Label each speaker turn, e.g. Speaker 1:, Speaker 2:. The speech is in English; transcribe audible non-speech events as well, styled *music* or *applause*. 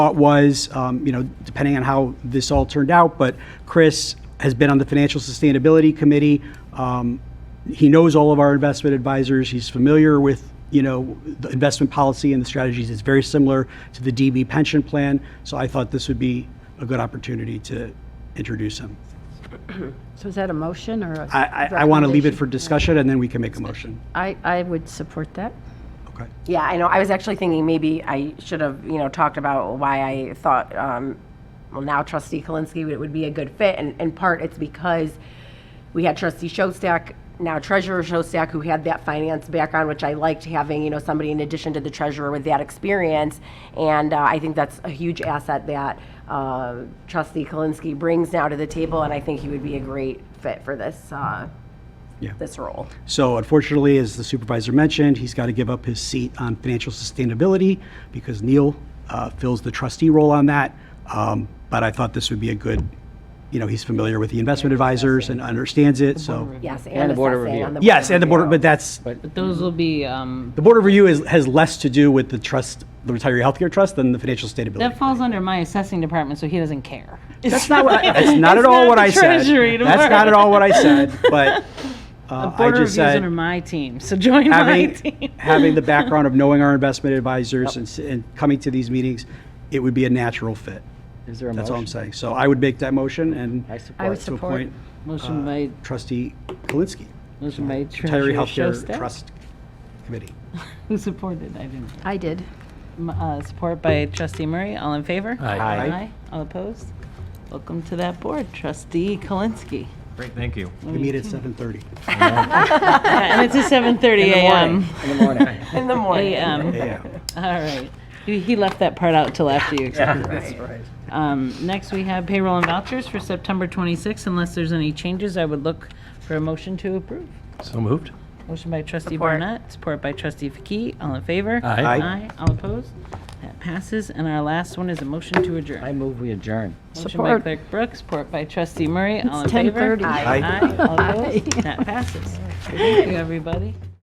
Speaker 1: thought was, um, you know, depending on how this all turned out, but Chris has been on the Financial Sustainability Committee. Um, He knows all of our investment advisors. He's familiar with, you know, the investment policy and the strategies. It's very similar to the DB pension plan. So I thought this would be a good opportunity to introduce him.
Speaker 2: So is that a motion or a?
Speaker 1: I, I, I want to leave it for
Speaker 2: recommendation?
Speaker 1: discussion and then we can make a motion.
Speaker 2: I, I would support that.
Speaker 1: Okay.
Speaker 3: Yeah, I know. I was actually thinking maybe I should have, you know, talked about why I thought, um, well, now trustee Kalinsky would- would be a good fit. And in part, it's because we had trustee Showstack, now treasurer Showstack, who had that finance background, which I liked having, you know, somebody in addition to the treasurer with that experience. And uh, I think that's a huge asset that uh, trustee Kalinsky brings now to the table. And I think he would be a great fit for this, uh,
Speaker 1: Yeah.
Speaker 3: this role.
Speaker 1: So unfortunately, as the supervisor mentioned, he's got to give up his seat on financial sustainability because Neil uh, fills the trustee role on that. Um, But I thought this would be a good, you know, he's familiar with the investment advisors and understands it, so.
Speaker 3: Yes,
Speaker 4: And
Speaker 3: and
Speaker 4: the Board of
Speaker 3: assessing
Speaker 4: Review.
Speaker 3: on the. Board
Speaker 1: Yes,
Speaker 3: of
Speaker 1: and the board,
Speaker 3: Review.
Speaker 1: but that's,
Speaker 5: But those will be, um,
Speaker 1: the board of review is, has less to do with the trust, the retiree healthcare trust than the financial
Speaker 5: that
Speaker 1: sustainability.
Speaker 5: falls under my assessing department, so he doesn't care.
Speaker 1: That's not, what I-
Speaker 5: *laughs*
Speaker 1: that's not at
Speaker 5: It's
Speaker 1: all
Speaker 5: not
Speaker 1: what
Speaker 5: the
Speaker 1: I said.
Speaker 5: Treasury
Speaker 1: That's not at all what I said, but
Speaker 5: *laughs*
Speaker 1: uh, I
Speaker 5: Border
Speaker 1: just
Speaker 5: reviews
Speaker 1: said.
Speaker 5: under my team, so join
Speaker 4: *laughs*
Speaker 5: my
Speaker 1: having,
Speaker 5: *laughs* team.
Speaker 1: having the background of knowing our investment advisors and, s- and coming to these meetings, it would be a natural fit.
Speaker 4: Is there a
Speaker 1: That's all I'm
Speaker 4: motion?
Speaker 1: saying. So I would make that motion and
Speaker 4: I
Speaker 2: I would
Speaker 4: support.
Speaker 1: to
Speaker 2: support.
Speaker 1: appoint
Speaker 5: Motion by,
Speaker 1: trustee Kalinsky,
Speaker 5: motion by
Speaker 1: retiree
Speaker 5: Treasurer
Speaker 1: healthcare
Speaker 5: Shostak.
Speaker 1: trust committee.
Speaker 5: Who supported? I didn't.
Speaker 2: I did.
Speaker 5: M- uh, Support by trustee Murray. All in favor?
Speaker 1: Aye.
Speaker 5: All opposed? Welcome to that board, trustee Kalinsky.
Speaker 6: Great, thank you.
Speaker 1: We meet at 7:30
Speaker 5: Yeah, And it's at 7:30 a.m.
Speaker 4: In the morning.
Speaker 3: In the morning.
Speaker 5: A.m.
Speaker 1: AM.
Speaker 5: All right. He he left that part out till after you accepted.
Speaker 4: That's right.
Speaker 5: Um, Next, we have payroll and vouchers for September 26th. Unless there's any changes, I would look for a motion to approve.
Speaker 6: So moved.
Speaker 5: Motion by trustee
Speaker 3: Support.
Speaker 5: Barnett, support by trustee Faki. All in favor?
Speaker 6: Aye.
Speaker 1: Aye.
Speaker 5: All opposed? That passes. And our last one is a motion to
Speaker 4: I
Speaker 5: adjourn.
Speaker 4: move we adjourn.
Speaker 5: Motion by
Speaker 2: Support.
Speaker 5: clerk Brooks, support by trustee Murray. All in favor?
Speaker 2: 10:30.
Speaker 1: Aye.
Speaker 5: Aye. All opposed? That passes. Thank you, everybody.